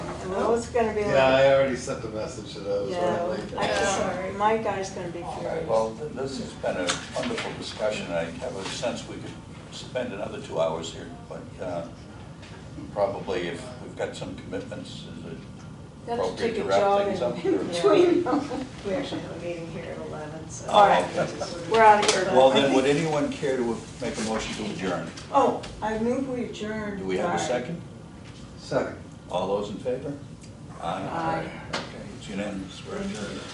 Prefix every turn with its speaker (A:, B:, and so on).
A: Oh, it's gonna be
B: Yeah,
A: like,
B: I already sent a message to those.
A: yeah,
B: already.
A: I'm sorry, my guy's gonna be
C: All right, well,
A: furious.
C: th- this has been a wonderful discussion, I have a sense we could spend another two hours here, but uh, probably if we've got some commitments, is it
A: Got to
C: appropriate
A: take
C: to
A: a
C: wrap
A: jog
C: things up?
A: in
C: or-
A: between them.
D: We actually have a meeting here at eleven, so.
A: All right, we're out of here. but
C: Well,
A: I
C: then,
A: think-
C: would anyone care to make a motion to adjourn?
A: Oh, I move we adjourn.
C: Do we have a
A: Sorry.
C: second?
B: Second.
C: All those in favor?
A: Aye.
C: Okay, it's unanimous, we're adjourned.